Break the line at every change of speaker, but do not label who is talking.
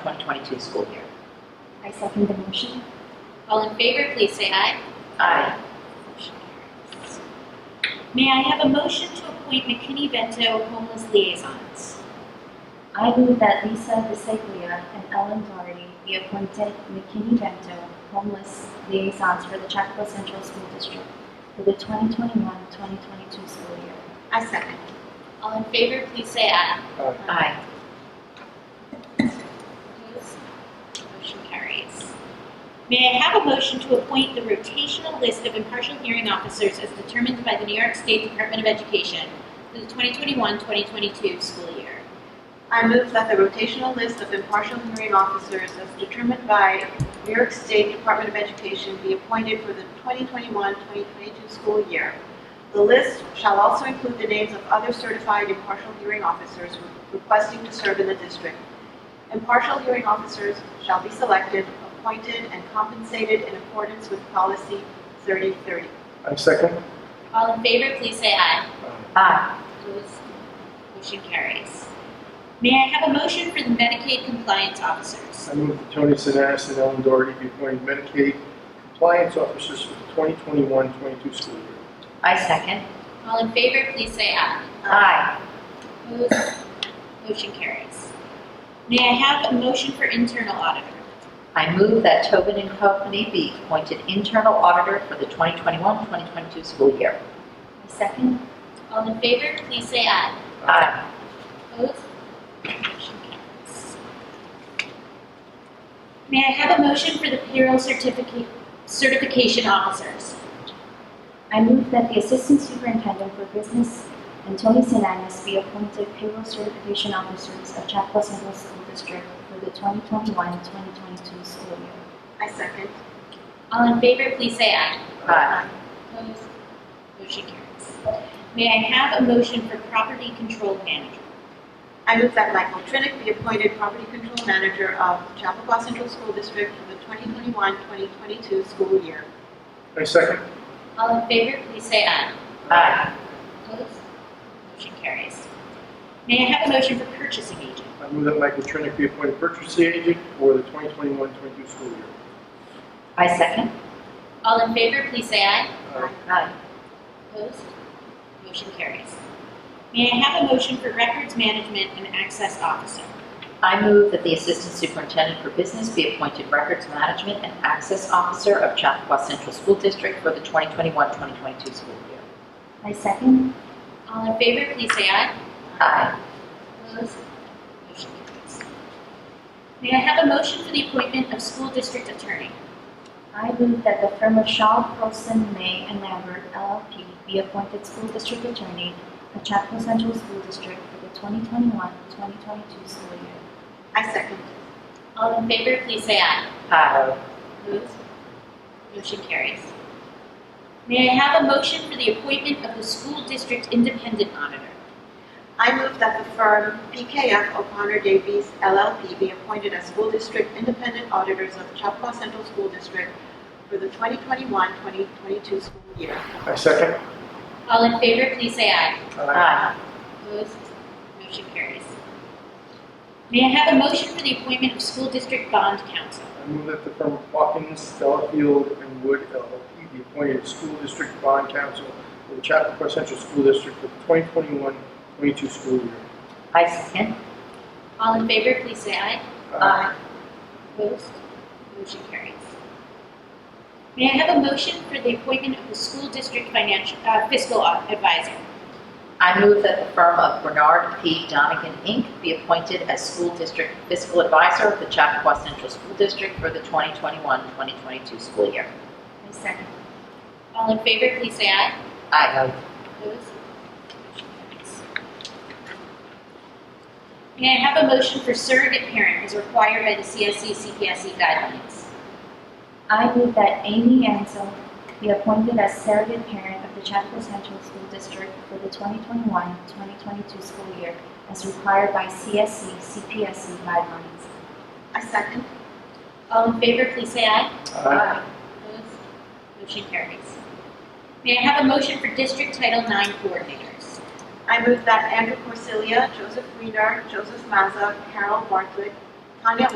2022 school year.
I second the motion.
All in favor, please say aye.
Aye.
May I have a motion to appoint McKinney Vento homeless liaisons?
I move that Lisa Bisaglia and Ellen Doherty be appointed McKinney-Vento homeless liaisons for the Chapakua Central School District for the 2021-2022 school year.
I second. All in favor, please say aye.
Aye.
Opposed? Motion carries. May I have a motion to appoint the rotational list of impartial hearing officers as determined by the New York State Department of Education for the 2021-2022 school year?
I move that the rotational list of impartial hearing officers as determined by New York State Department of Education be appointed for the 2021-2022 school year. The list shall also include the names of other certified impartial hearing officers requesting to serve in the district. Impartial hearing officers shall be selected, appointed, and compensated in accordance with policy 3030.
I second.
All in favor, please say aye.
Aye.
Opposed? Motion carries. May I have a motion for the Medicaid compliance officers?
I move that Tony Sinanis and Ellen Doherty be appointed Medicaid compliance officers for the 2021-22 school year.
I second.
All in favor, please say aye.
Aye.
Opposed? Motion carries. May I have a motion for internal auditor?
I move that Tobin and Company be appointed internal auditor for the 2021-2022 school year.
I second.
All in favor, please say aye.
Aye.
Opposed? Motion carries. May I have a motion for the payroll certificate, certification officers?
I move that the Assistant Superintendent for Business and Tony Sinanis be appointed payroll certification officers of Chapakua Central School District for the 2021-2022 school year.
I second.
All in favor, please say aye.
Aye.
Opposed? Motion carries. May I have a motion for property control manager?
I move that Michael Trinick be appointed Property Control Manager of Chappaqua Central School District for the 2021-2022 school year.
I second.
All in favor, please say aye.
Aye.
Opposed? Motion carries. May I have a motion for purchasing agent?
I move that Michael Trinick be appointed purchasing agent for the 2021-22 school year.
I second.
All in favor, please say aye.
Aye.
Aye.
Opposed? Motion carries. May I have a motion for records management and access officer?
I move that the Assistant Superintendent for Business be appointed Records Management and Access Officer of Chappaqua Central School District for the 2021-2022 school year.
I second.
All in favor, please say aye.
Aye.
Opposed? Motion carries. May I have a motion for the appointment of school district attorney?
I move that the firm of Shaw, Wilson, May, and Lambert LLP be appointed school district attorney of Chapel Central School District for the 2021-2022 school year.
I second.
All in favor, please say aye.
Aye.
Opposed? Motion carries. May I have a motion for the appointment of the school district independent auditor?
I move that the firm PKF O'Connor Davies LLP be appointed as school district independent auditors of Chappaqua Central School District for the 2021-2022 school year.
I second.
All in favor, please say aye.
Aye.
Aye.
Opposed? Motion carries. May I have a motion for the appointment of school district bond counsel?
I move that the firm of Hawkins, Delafield, and Wood LLP be appointed school district bond counsel for the Chappaqua Central School District for the 2021-22 school year.
I second.
All in favor, please say aye.
Aye.
Opposed? Motion carries. May I have a motion for the appointment of the school district financial, uh, fiscal advisor?
I move that the firm of Bernard P. Donigan, Inc. be appointed as school district fiscal advisor of the Chappaqua Central School District for the 2021-2022 school year.
I second.
All in favor, please say aye.
Aye.
May I have a motion for surrogate parent as required by the E CSE CPSE guidelines?
I move that Amy Ansel be appointed as surrogate parent of the Chapel Central School District for the 2021-2022 school year as required by E, CSC CPSC guidelines.
I second.
All in favor, please say aye.
Aye.
Opposed? Motion carries. May I have a motion for district Title IX coordinators?
I move that Andrew Corsilia, Joseph Weinar, Joseph Mazza, Carol Bartlett, Tanya